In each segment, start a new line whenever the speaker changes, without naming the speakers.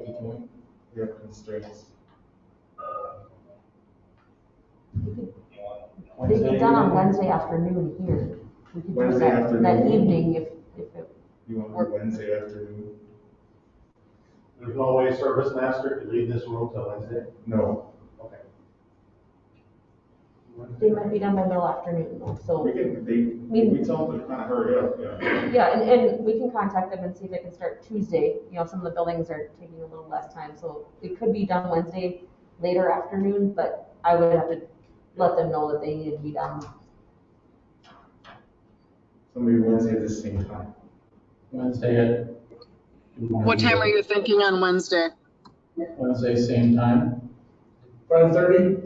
Fifty-two, we have constraints.
It'd be done on Wednesday afternoon here. We could do
Wednesday
that, that
afternoon.
evening if, if it,
You want to do Wednesday afternoon?
There's no way service master could leave this room till Wednesday?
No,
Okay.
they might be done by middle afternoon,
we
so.
can, they,
mean-
we tell them to kind of hurry up, yeah.
Yeah, and, and we can contact them and see if they can start Tuesday. You know, some of the buildings are taking a little less time, so it could be done Wednesday later afternoon, but I would have to let them know that they need to be done.
So maybe Wednesday at the same time.
Wednesday at.
What time are you thinking on Wednesday?
Wednesday, same time.
Five thirty?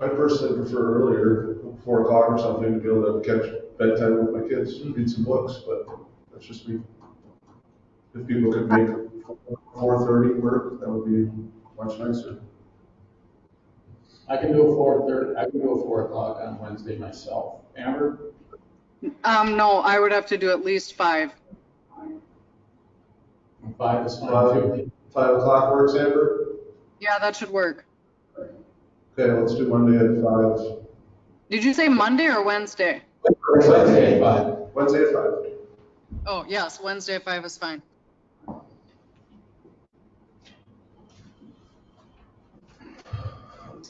I personally prefer earlier, four o'clock or something, to be able to catch bedtime with my kids, read some books, but that's just me. If people could make four thirty work, that would be much nicer.
I can do a four thirty, I can do a four o'clock on Wednesday myself. Amber,
Um, no, I would have to do at least five.
five is fine
Five,
too.
five o'clock works, Amber?
Yeah, that should work.
Okay, let's do Monday at five.
Did you say Monday or Wednesday?
Wednesday at five.
Wednesday at five.
Oh, yes, Wednesday at five is fine.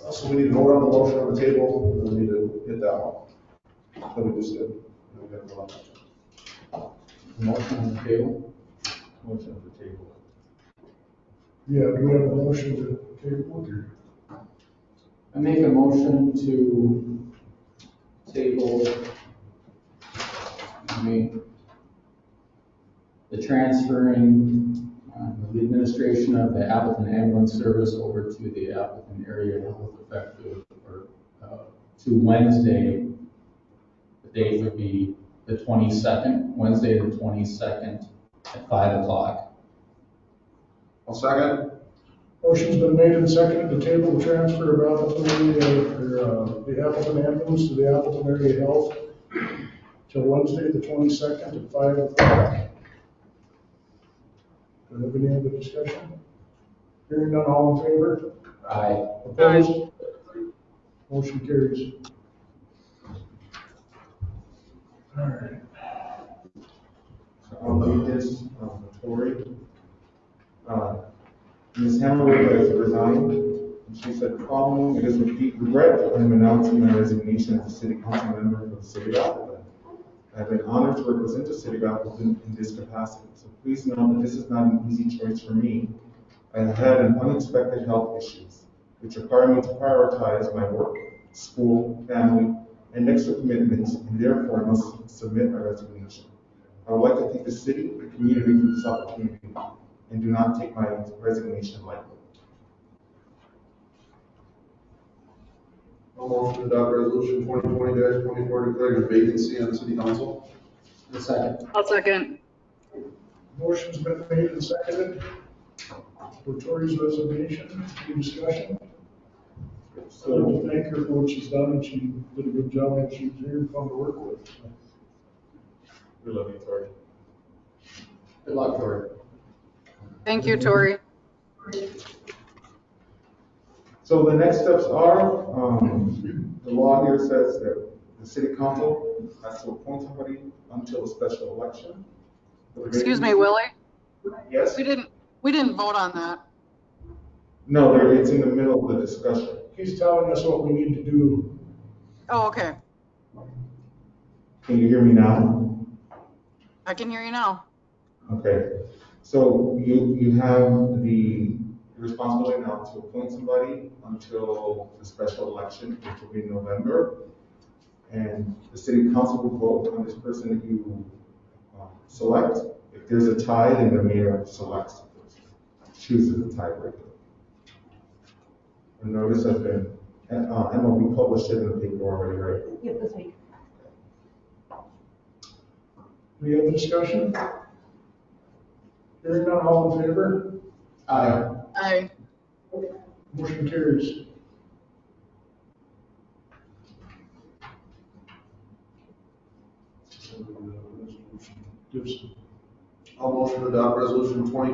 Also, we need to vote on the motion on the table, and we need to hit that one. That we just did. We gotta vote on that.
Motion on the table.
Motion at the table.
Yeah, do we have a motion to table it?
I make a motion to table, I mean, the transferring, um, the administration of the Appleton ambulance service over to the Appleton area health effective, or, uh, to Wednesday. The date would be the twenty-second, Wednesday the twenty-second at five o'clock.
I'll second.
Motion's been made and seconded to table the transfer of Appleton, uh, or, uh, the Appleton ambulance to the Appleton area health till Wednesday, the twenty-second at five o'clock. Do we have any other discussion? Hearing none, all in favor?
Aye.
Opposed? Motion carries. All right.
On the weakness, um, Tori, uh, Ms. Hammerwood has resigned. And She said, following, it is with deep regret that I'm announcing my resignation as a city council member for the city of Appleton. I've been honored to represent the city of Appleton in this capacity, so please know that this is not an easy choice for me. I have had an unexpected health issues, which require me to prioritize my work, school, family, and extra commitments, and therefore must submit my resignation. I would like to thank the city and community for this opportunity, and do not take my resignation lightly.
I'll motion to adopt resolution twenty twenty twenty-four declaring a vacancy on the city council.
The second.
I'll second.
Motion's been made and seconded for Tori's resignation. Any discussion? So I would thank her for what she's done, and she did a good job, and she's very fun to work with.
We love you, Tori.
Good luck, Tori.
Thank you, Tori.
So the next steps are, um, the law here says that the city council has to appoint somebody until a special election.
Excuse me, Willie?
Yes?
We didn't, we didn't vote on that.
No, there- it's in the middle of the discussion.
He's telling us what we need to do.
Oh, okay.
Can you hear me now?
I can hear you now.
Okay, so you, you have the responsibility now to appoint somebody until the special election, which will be in November. And the city council will vote on this person that you um, select. If there's a tie, then the mayor selects, chooses the tiebreaker. A notice has been, and, uh, Emma, we published it in the paper already, right?
Yep, this week.
Do we have a discussion? Hearing none, all in favor?
Aye.
Aye.
Motion carries.
Resolution.
Gibson.
i I'll motion to adopt resolution twenty